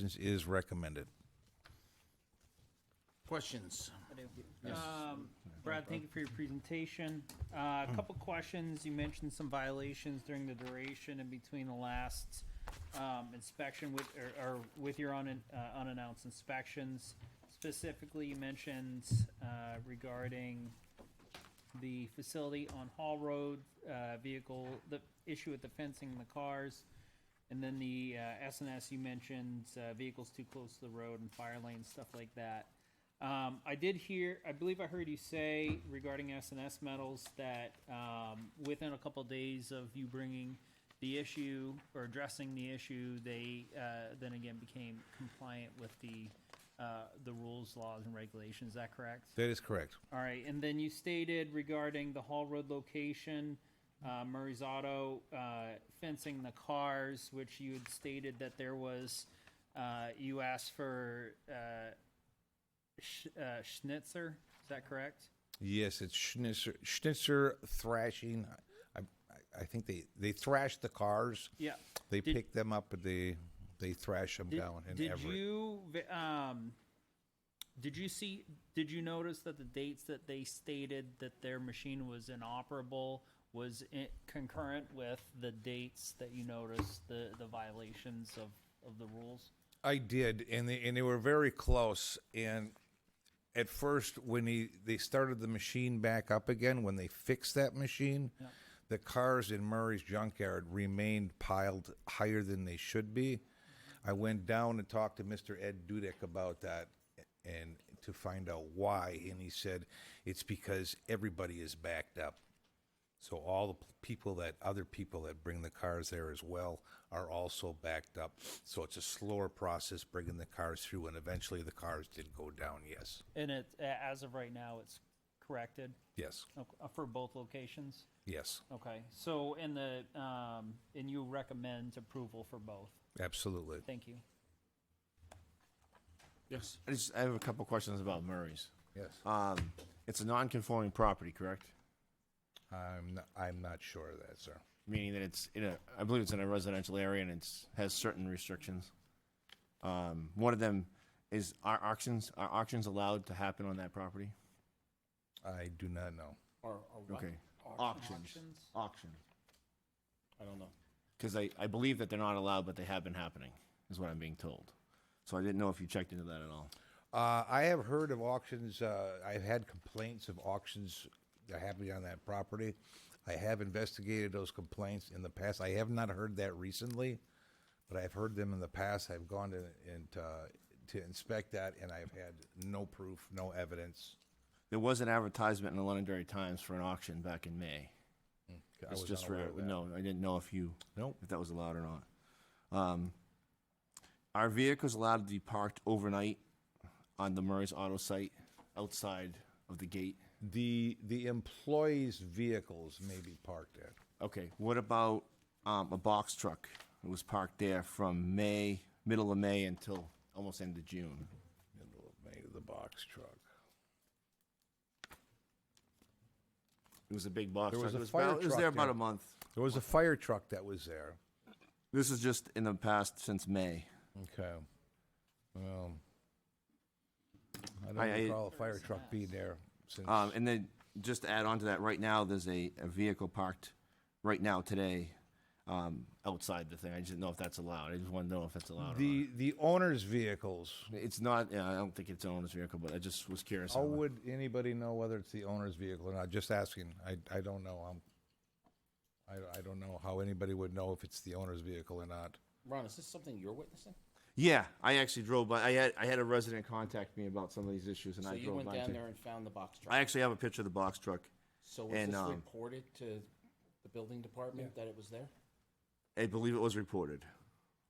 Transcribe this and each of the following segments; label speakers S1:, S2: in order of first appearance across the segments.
S1: license is recommended.
S2: Questions?
S3: Um, Brad, thank you for your presentation. Uh, A couple questions. You mentioned some violations during the duration and between the last um, inspection with, or- or with your un- uh, unannounced inspections. Specifically, you mentioned uh, regarding the facility on Hall Road, uh, vehicle, the issue with the fencing and the cars. And then the uh, S you mentioned, uh, vehicles too close to the road and fire lanes, stuff like that. Um, I did hear, I believe I heard you say regarding S and S metals that um, within a couple days of you bringing the issue or addressing the issue, they uh, then again became compliant with the uh, the rules, laws, and regulations. Is that correct?
S1: That is correct.
S3: All right, and then you stated regarding the Hall Road location, uh, Murray's Auto uh, fencing the cars, which you had stated that there was, uh, you asked for uh, Sch- uh, Schnitzer, is that correct?
S1: Yes, it's Schnitzer, Schnitzer thrashing. I, I, I think they, they thrash the cars.
S3: Yeah.
S1: They
S3: Did-
S1: pick them up, and they, they thrash them down in
S3: Did
S1: Everett.
S3: you, vi- um, did you see, did you notice that the dates that they stated that their machine was inoperable was i- concurrent with the dates that you noticed the, the violations of, of the rules?
S1: I did, and they, and they were very close, and at first, when he, they started the machine back up again, when they fixed that machine, the cars in Murray's junkyard remained piled higher than they should be. I went down and talked to Mr. Ed Dudek about that and to find out why, and he said, it's because everybody is backed up. So all the p- people that, other people that bring the cars there as well are also backed up. So it's a slower process bringing the cars through, and eventually the cars did go down, yes.
S3: And it, a- as of right now, it's corrected
S1: Yes,
S3: ok- uh, for both locations?
S1: yes,
S3: Okay, so, and the, um, and you recommend approval for both?
S1: absolutely.
S3: Thank you.
S2: Yes.
S4: I just I have a couple questions about Murray's.
S1: Yes.
S4: Um, it's a non-conforming property, correct?
S1: I'm, not- I'm not sure of that, sir.
S4: Meaning that it's in a I believe it's in a residential area and it's has certain restrictions. Um, one of them is are auctions are auctions allowed to happen on that property?
S1: I do not know.
S2: Or, or
S4: Okay,
S3: Auctions?
S4: auction.
S2: I don't know.
S4: Because I, I believe that they're not allowed, but they have been happening, is what I'm being told. So I didn't know if you checked into that at all.
S1: Uh, I have heard of auctions, uh, I've had complaints of auctions that happening on that property. I have investigated those complaints in the past. I have not heard that recently, but I've heard them in the past. I've gone to, and, uh, to inspect that, and I've had no proof, no evidence.
S4: There was an advertisement in the Londonderry Times for an auction back in May.
S1: I
S4: It's
S1: was
S4: just for
S1: unaware of that.
S4: no, I didn't know if you
S1: Nope.
S4: if that was allowed or not. Um, are vehicles allowed to be parked overnight on the Murray's Auto site outside of the gate?
S1: The, the employees' vehicles may be parked at.
S4: Okay. What about um, a box truck? It was parked there from May, middle of May until almost end of June.
S1: Middle of May, the box truck.
S4: It was a big box
S1: There
S4: truck.
S1: was a
S4: it, was
S1: fire
S4: about, it was
S1: truck
S4: there about
S1: there.
S4: a month.
S1: There was a fire truck that was there.
S4: This is just in the past since May.
S1: Okay. Well, I
S4: I- I-
S1: don't recall a fire truck being there since.
S4: Um, and then just to add on to that, right now there's a, a vehicle parked right now today um, outside the thing. I just didn't know if that's allowed. I just want to know if that's allowed. or
S1: The, the owner's vehicles,
S4: not. It's not. Yeah, I don't think it's an owner's vehicle, but I just was curious.
S1: how
S4: on that.
S1: would anybody know whether it's the owner's vehicle or not? Just asking. I, I don't know. I'm, I, I don't know how anybody would know if it's the owner's vehicle or not.
S2: Ron, is this something you're witnessing?
S4: Yeah, I actually drove by. I had I had a resident contact me about some of these issues, and
S2: So
S4: I
S2: you
S4: drove
S2: went
S4: by.
S2: down
S4: too.
S2: there and found the box
S4: I
S2: truck?
S4: actually have a picture of the box truck.
S2: So was
S4: and,
S2: this
S4: um,
S2: reported to the building department that it was there?
S4: I believe it was reported.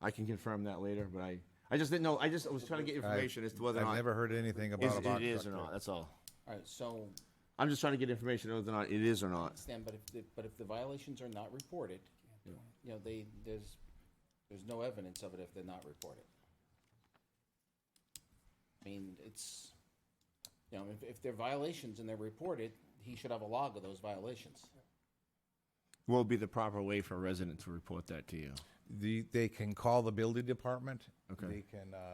S4: I can confirm that later, but I I just didn't know. I just I was trying to get information as to whether or
S1: I've
S4: not
S1: never heard anything about
S4: is-
S1: a box truck.
S4: it is or
S1: there.
S4: not. That's all.
S2: All right, so,
S4: I'm just trying to get information whether or not it is or not.
S2: Stan, but if, the- but if the violations are not reported, you know, they, there's, there's no evidence of it if they're not reported. I mean, it's, you know, if, if they're violations and they're reported, he should have a log of those violations.
S4: will be the proper way for a resident to report that to you.
S1: The, they can call the building department.
S4: Okay.
S1: They can, uh,